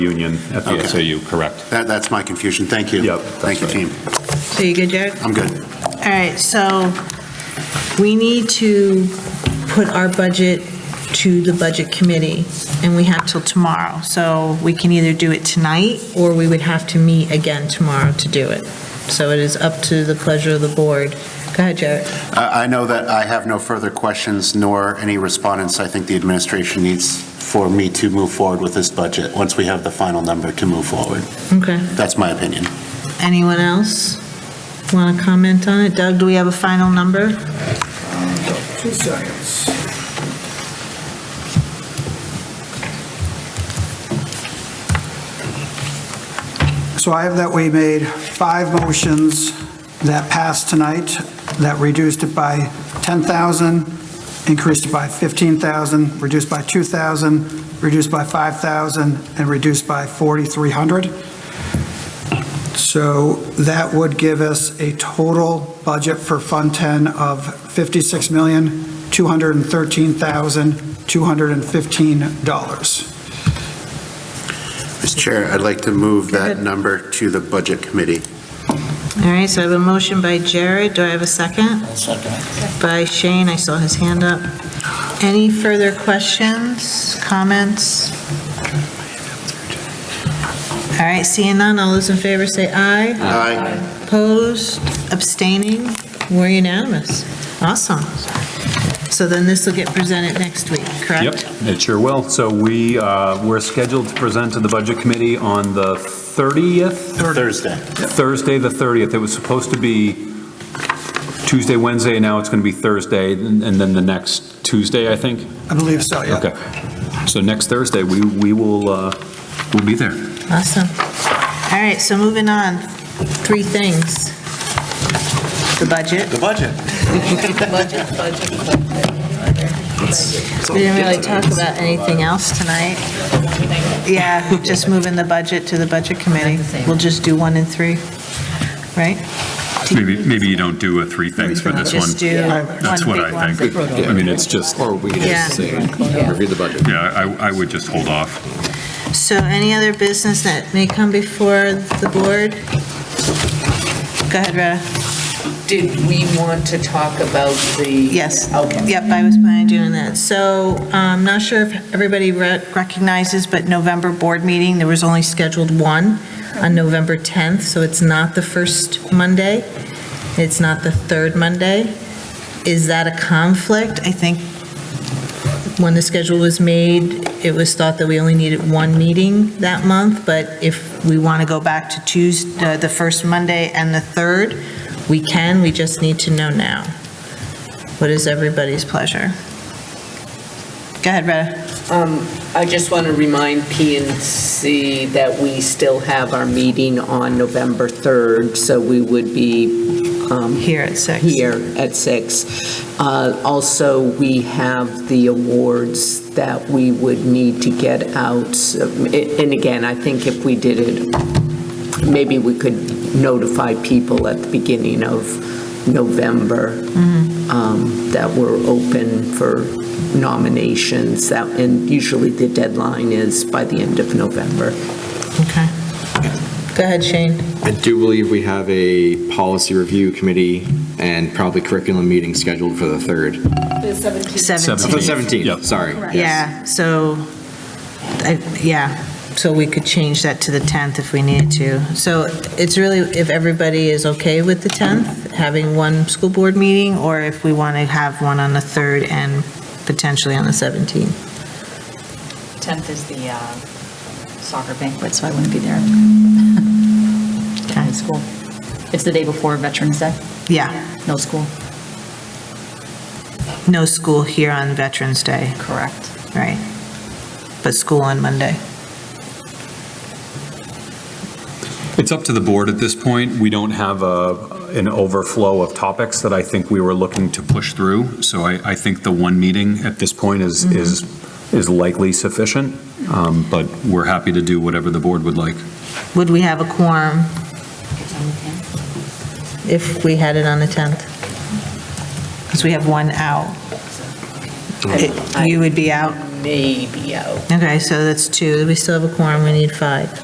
union at the Okay. SAU, correct. That, that's my confusion. Thank you. Yep, Thank you, that's team. So you good, Jared? I'm good. All right, so we need to put our budget to the budget committee, and we have till tomorrow. So we can either do it tonight, or we would have to meet again tomorrow to do it. So it is up to the pleasure of the board. Go ahead, Jared. I, I know that I have no further questions nor any respondents I think the administration needs for me to move forward with this budget, once we have the final number to move forward. Okay. That's my opinion. Anyone else want to comment on it? Doug, do we have a final number? Two seconds. So I have that we made five motions that passed tonight, that reduced it by 10,000, increased it by 15,000, reduced by 2,000, reduced by 5,000, and reduced by 4,300. So that would give us a total budget for Fund 10 of $56,213,215. Mr. Chair, I'd like to move that number to the budget committee. All right, so I have a motion by Jared. Do I have a 2nd second. By Shane, I saw his hand up. Any further questions, comments? All right, seeing none, all those in favor say aye. Aye. Opposed, abstaining, we're unanimous. Awesome. So then this will get presented next week, correct? Yep, it sure will. So we, uh, we're scheduled to present to the Budget Committee on the 30th, Thursday. Thursday, the 30th. It was supposed to be Tuesday, Wednesday, and now it's going to be Thursday, and and then the next Tuesday, I think. I believe so, yeah. Okay. So next Thursday, we, we will, uh, we'll be there. Awesome. All right, so moving on, three things. The budget. The budget. We didn't really talk about anything else tonight. Yeah, just moving the budget to the budget committee. We'll just do one and three, right? Maybe, maybe you don't do a three things for this one. Just do one big one. That's what I think. I mean, it's just, Or we can Yeah. just say, review the budget. yeah, I, I would just hold off. So any other business that may come before the board? Go ahead, Rheta. Did we want to talk about the? Yes. Okay. Yep, I was planning on doing that. So I'm not sure if everybody re- recognizes, but November board meeting, there was only scheduled one on November 10th, so it's not the first Monday. It's not the third Monday. Is that a conflict? I think when the schedule was made, it was thought that we only needed one meeting that month, but if we want to go back to Tuesday, the first Monday and the third, we can, we just need to know now. What is everybody's pleasure? Go ahead, Rheta. Um, I just want to remind P and C that we still have our meeting on November 3rd, so we would be um, Here at six. here at six. Uh, Also, we have the awards that we would need to get out. And again, I think if we did it, maybe we could notify people at the beginning of November Mm-hmm. um, that we're open for nominations. That And usually the deadline is by the end of November. Okay. Go ahead, Shane. I do believe we have a policy review committee and probably curriculum meeting scheduled for the 3rd. Seventeen. For the 17th, Yep. sorry. yes. Yeah, so, I- yeah, so we could change that to the 10th if we needed to. So it's really if everybody is okay with the 10th, having one school board meeting, or if we want to have one on the 3rd and potentially on the 17th. 10th is the uh, soccer banquet, so I wouldn't be there. Okay. At school. It's the day before Veterans Day, Yeah, no school. no school here on Veterans Day, Correct. right? But school on Monday. It's up to the board at this point. We don't have a, an overflow of topics that I think we were looking to push through. So I, I think the one meeting at this point is, is, is likely sufficient. Um, But we're happy to do whatever the board would like. Would we have a quorum if we had it on the 10th? Because we have one out. It- You would be out? may be out. Okay, so that's two. We still have a quorum. We need five.